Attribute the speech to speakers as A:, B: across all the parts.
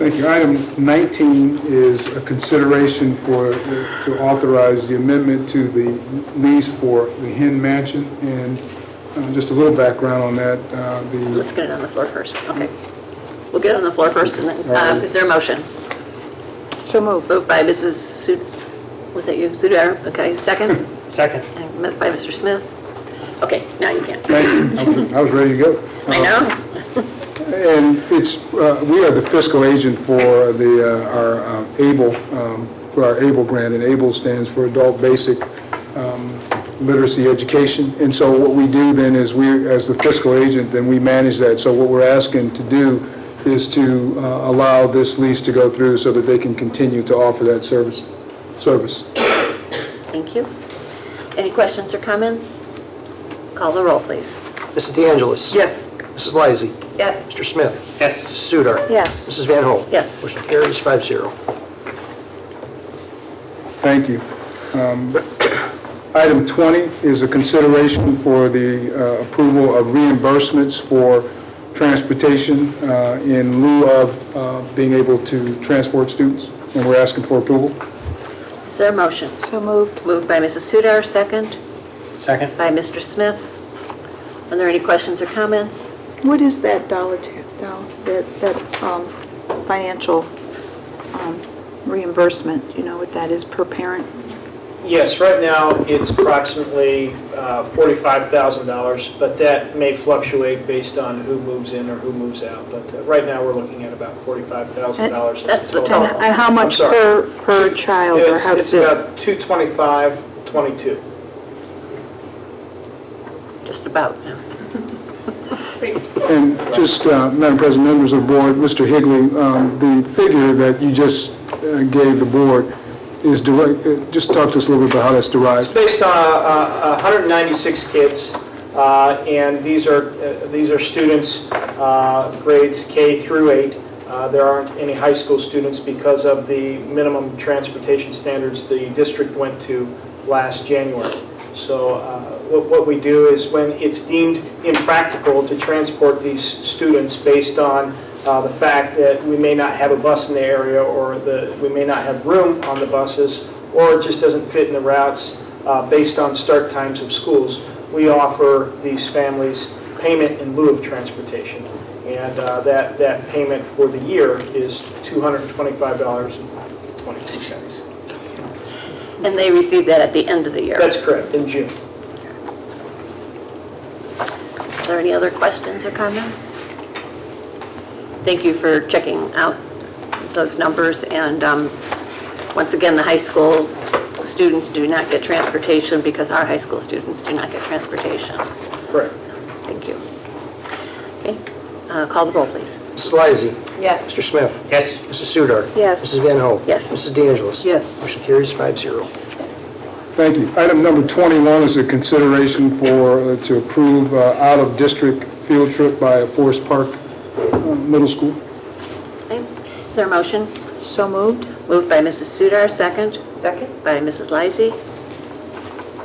A: Thank you. Item 19 is a consideration for, uh, to authorize the amendment to the lease for the Hen Mansion. And uh, just a little background on that, uh, the,
B: Let's get it on the floor first, okay. We'll get it on the floor first, and then, um, is there a motion?
C: So moved.
B: Moved by Mrs. Sud, was that you, Sudar? Okay, second?
D: Second.
B: And moved by Mr. Smith? Okay, now you can.
A: thank you. I was- I was ready to go.
B: I
D: Uh-huh.
B: know,
A: And it's, uh, we are the fiscal agent for the, uh, our um, ABLE, um, for our ABLE grant, and ABLE stands for Adult Basic um, Literacy Education. And so what we do then is we, as the fiscal agent, then we manage that. So what we're asking to do is to uh, allow this lease to go through so that they can continue to offer that service, service.
B: thank you. Any questions or comments? Call the roll, please.
E: Mrs. De Angelis.
B: Yes.
E: Mrs. Lysy.
B: Yes.
E: Mr. Smith.
D: Yes.
E: Mrs. Sudar.
C: Yes.
E: Mrs. Van Hoen.
B: Yes.
E: Motion carries five zero.
A: Thank you. Um, Item 20 is a consideration for the uh, approval of reimbursements for transportation uh, in lieu of uh, being able to transport students, and we're asking for approval.
B: Is there a motion?
C: So moved.
B: Moved by Mrs. Sudar, second
D: Second.
B: by Mr. Smith. Are there any questions or comments?
C: What is that dollar, ta- dollar, that, that um, financial um, reimbursement? You know what that is per parent?
D: Yes, right now, it's approximately uh, $45,000, but that may fluctuate based on who moves in or who moves out. But uh, right now, we're looking at about $45,000. as a
B: That's the
C: And
B: total.
C: and how much
D: Oh, I'm
C: per, per child, or
D: It's
C: how
D: it's
C: does it?
D: about 225, 22.
B: Just about.
A: And just, uh, Madam President, members of the board, Mr. Higley, um, the figure that you just uh, gave the board is direct, uh, just talk to us a little bit about how that's derived.
D: Based on uh, uh, 196 kids, uh, and these are, uh, these are students, uh, grades K through 8. Uh, There aren't any high school students because of the minimum transportation standards the district went to last January. So uh, what what we do is when it's deemed impractical to transport these students based on uh, the fact that we may not have a bus in the area, or the, we may not have room on the buses, or it just doesn't fit in the routes uh, based on start times of schools, we offer these families payment in lieu of transportation. And uh, that, that payment for the year is $225.22.
B: And they receive that at the end of the year.
D: That's correct, in June.
B: Are there any other questions or comments? Thank you for checking out those numbers, and um, once again, the high school students do not get transportation because our high school students do not get transportation.
D: Correct.
B: Thank you. Okay, uh, call the roll, please.
E: Mrs. Lysy.
B: Yes.
E: Mr. Smith.
D: Yes.
E: Mrs. Sudar.
C: Yes.
E: Mrs. Van Hoen.
B: Yes.
E: Mrs. De Angelis.
C: Yes.
E: Motion carries five zero.
A: Thank you. Item number 21 is a consideration for, uh, to approve uh, out-of-district field trip by Forest Park uh, Middle School.
B: Is there a motion?
C: So moved?
B: Moved by Mrs. Sudar, second. Second. By Mrs. Lysy.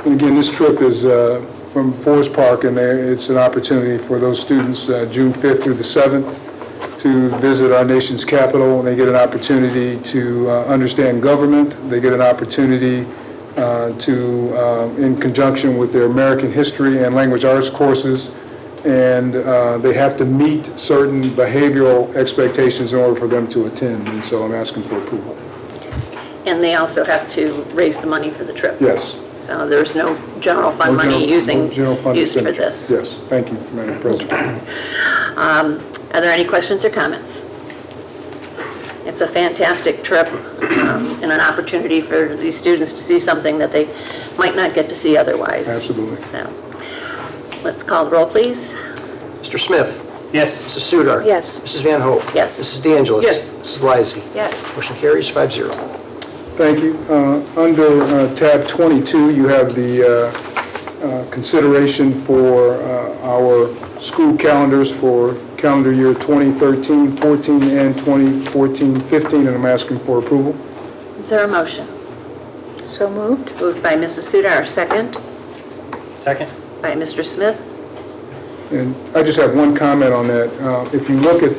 A: And again, this trip is uh, from Forest Park, and there- it's an opportunity for those students, uh, June 5th through the 7th, to visit our nation's capital, and they get an opportunity to uh, understand government. They get an opportunity uh, to, um, in conjunction with their American history and language arts courses, and uh, they have to meet certain behavioral expectations in order for them to attend, and so I'm asking for approval.
B: And they also have to raise the money for the trip.
A: Yes.
B: So there's no general fund
A: No general-
B: money
A: no
B: using,
A: general fund
B: used for
A: expenditure.
B: this.
A: Yes, thank you, Madam President.
B: Are there any questions or comments? It's a fantastic trip um, and an opportunity for these students to see something that they might not get to see otherwise.
A: Absolutely.
B: So, let's call the roll, please.
E: Mr. Smith.
D: Yes.
E: Mrs. Sudar.
C: Yes.
E: Mrs. Van Hoen.
B: Yes.
E: Mrs. De Angelis.
B: Yes.
E: Mrs. Lysy.
B: Yes.
E: Motion carries five zero.
A: Thank you. Uh, Under uh, tab 22, you have the uh, uh, consideration for uh, our school calendars for calendar year 2013, 14, and 2014, 15, and I'm asking for approval.
B: Is there a motion?
C: So moved?
B: Moved by Mrs. Sudar, second
D: Second.
B: by Mr. Smith.
A: And I just have one comment on that. Uh, If you look at